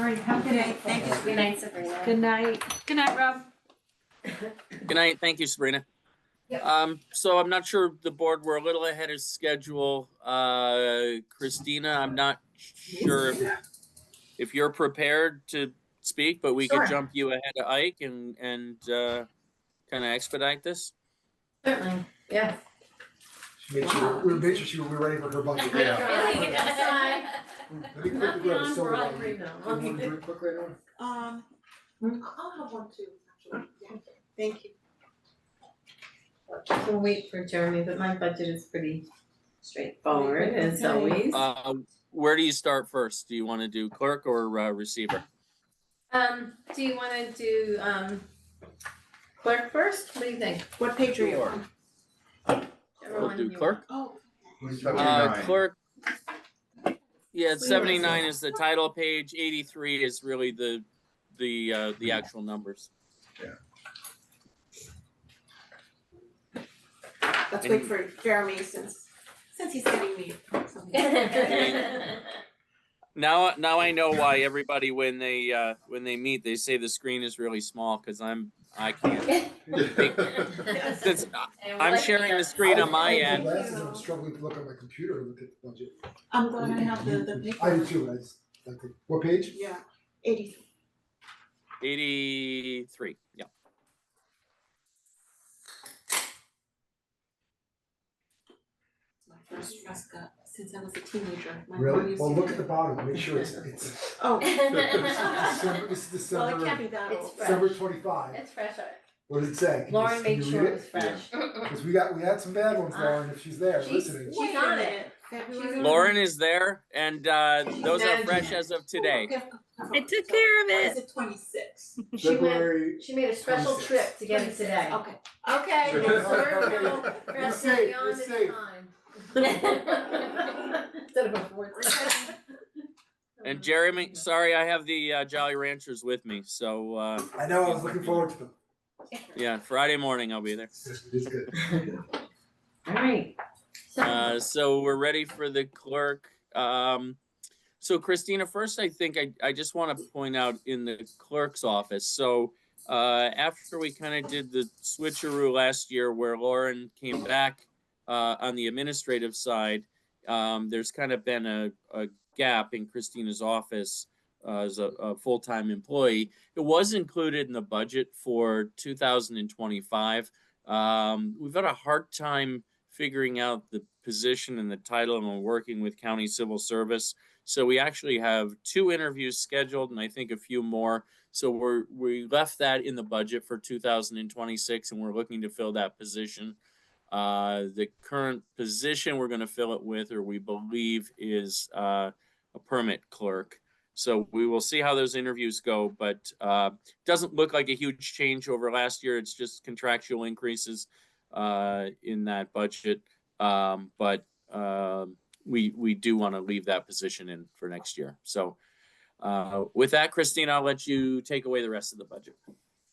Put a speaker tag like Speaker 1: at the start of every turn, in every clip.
Speaker 1: right, have a good
Speaker 2: Okay,
Speaker 1: night.
Speaker 2: thank you.
Speaker 3: Good night, Sabrina.
Speaker 1: Good night.
Speaker 2: Good night, Rob.
Speaker 4: Good night. Thank you, Sabrina.
Speaker 2: Yep.
Speaker 4: Um, so I'm not sure the board, we're a little ahead of schedule. Uh, Christina, I'm not sure if- if you're prepared to speak, but we
Speaker 3: Sure.
Speaker 4: could jump you ahead of Ike and, and, uh, kind of expedite this.
Speaker 3: Certainly, yeah.
Speaker 5: She made sure, we made sure she would be ready for her budget. Let me quickly grab a silver one. You want to drink quick right now?
Speaker 6: Um, I'll have one too, actually, yeah, thank you.
Speaker 3: We'll wait for Jeremy, but my budget is pretty straightforward as
Speaker 6: Okay.
Speaker 3: always.
Speaker 4: Uh, where do you start first? Do you want to do clerk or, uh, receiver?
Speaker 3: Um, do you wanna do um clerk first? What do you think?
Speaker 6: What page are you
Speaker 4: Sure.
Speaker 6: on?
Speaker 4: We'll
Speaker 3: Everyone
Speaker 4: do
Speaker 3: you
Speaker 4: clerk.
Speaker 6: Oh,
Speaker 5: What do you
Speaker 7: Uh,
Speaker 5: think?
Speaker 4: Uh,
Speaker 7: 79.
Speaker 4: clerk. Yeah,
Speaker 3: Sweet.
Speaker 4: seventy-nine is the title page, eighty-three is really the, the, uh, the actual numbers.
Speaker 6: let's wait for Jeremy since, since he's getting me something.
Speaker 3: want.
Speaker 4: Now, now I know why everybody, when they, uh, when they meet, they say the screen is really small, cause I'm, I can't. Since I'm sharing the screen on my
Speaker 5: I have
Speaker 4: end,
Speaker 5: my glasses, I'm struggling to look at my computer and look at the budget.
Speaker 6: I'm glad I have the, the paper.
Speaker 5: I do too, I just, like, what page?
Speaker 6: Yeah, eighty,
Speaker 4: eighty-three, yeah.
Speaker 6: it's my first dress cut since I was a teenager, my mom
Speaker 5: Really?
Speaker 6: used
Speaker 5: Well,
Speaker 6: to
Speaker 5: look
Speaker 6: do
Speaker 5: at the
Speaker 6: it.
Speaker 5: bottom, make sure it's, it's,
Speaker 6: Oh,
Speaker 5: December- this is
Speaker 6: well, it can't
Speaker 5: December,
Speaker 6: be that
Speaker 3: It's
Speaker 6: old.
Speaker 3: fresh.
Speaker 5: December twenty-five,
Speaker 3: It's fresh.
Speaker 5: what does it say? Can you-
Speaker 3: Lauren
Speaker 5: can
Speaker 3: made
Speaker 5: you
Speaker 3: sure
Speaker 5: read
Speaker 3: it was fresh.
Speaker 5: Cause we got, we had some bad ones,
Speaker 3: Uh,
Speaker 5: Lauren, if she's there,
Speaker 3: she's-
Speaker 5: listening.
Speaker 3: She's
Speaker 6: Wait a
Speaker 3: on it.
Speaker 6: minute, February.
Speaker 4: Lauren is there and, uh, those are
Speaker 3: Imagine.
Speaker 4: fresh as of today.
Speaker 6: I
Speaker 2: I took care of
Speaker 6: Is
Speaker 2: it.
Speaker 6: it twenty-six?
Speaker 3: She went-
Speaker 5: February-
Speaker 3: She made a special
Speaker 5: 26.
Speaker 3: trip to get it today.
Speaker 6: Okay.
Speaker 3: Okay,
Speaker 5: Sure.
Speaker 3: it's served now,
Speaker 5: You're
Speaker 3: dressed
Speaker 5: safe, you're
Speaker 3: beyond its
Speaker 5: safe.
Speaker 3: time. Instead of a fourth.
Speaker 4: And Jeremy, sorry, I have the, uh, Jolly Ranchers with me, so, uh,
Speaker 5: I know, I was looking forward to them.
Speaker 4: yeah, Friday morning I'll be there.
Speaker 5: It's good.
Speaker 3: Alright. So,
Speaker 4: Uh, so we're ready for the clerk. Um, so Christina, first, I think I, I just want to point out in the clerk's office. So uh, after we kind of did the switcheroo last year where Lauren came back uh, on the administrative side, um, there's kind of been a, a gap in Christina's office uh, as a, a full-time employee. It was included in the budget for 2025. Um, we've had a hard time figuring out the position and the title, and we're working with county civil service. So we actually have two interviews scheduled, and I think a few more. So we're we left that in the budget for 2026, and we're looking to fill that position. Uh, the current position we're going to fill it with, or we believe, is uh, a permit clerk. So we will see how those interviews go, but uh, doesn't look like a huge change over last year. It's just contractual increases uh, in that budget. Um, but um, we we do want to leave that position in for next year. So uh, with that, Christine, I'll let you take away the rest of the budget.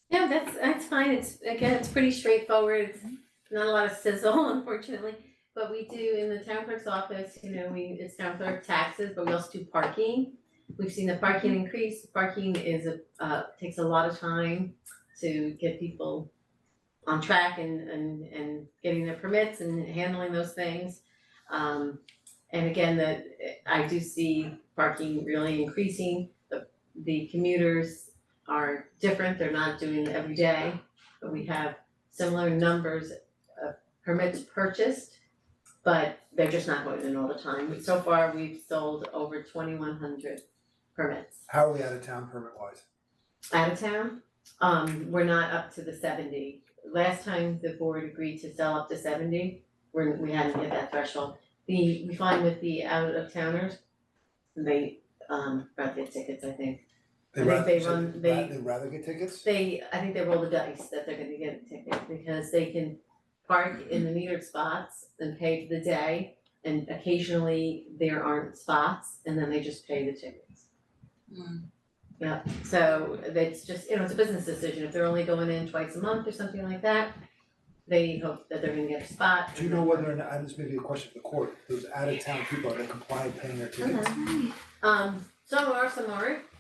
Speaker 3: yeah, that's, that's fine, it's, again, it's pretty straightforward, It's not a lot of sizzle unfortunately. But we do in the town clerk's office, you know, we, it's town clerk taxes, but we also do parking. We've seen the parking increase, parking is a, uh, takes a lot of time to get people on track and, and, and getting their permits and handling those things. Um, and again, the, I do see parking really increasing, the, the commuters are different, they're not doing it every day. But we have similar numbers of permits purchased, but they're just not going in all the time. So far, we've sold over twenty-one hundred permits
Speaker 5: How are we out of town permit wise?
Speaker 3: out of town. Um, we're not up to the seventy. Last time the board agreed to sell up to seventy, we're, we hadn't hit that threshold. The, we find with the out of towners, they, um, brought their tickets, I think. I think they run- they-
Speaker 5: They'd rather get tickets?
Speaker 3: They, I think they roll the dice that they're gonna get a ticket because they can park in the metered spots and pay for the day. And occasionally there aren't spots and then they just pay the tickets.
Speaker 6: Mm.
Speaker 3: Yeah, so that's just, you know, it's a business decision. If they're only going in twice a month or something like that, they hope that they're gonna get a spot.
Speaker 5: Do you know whether or not, I just maybe a question for the court, those out of town people, are they compliant paying their tickets?
Speaker 3: Um, some are, some aren't.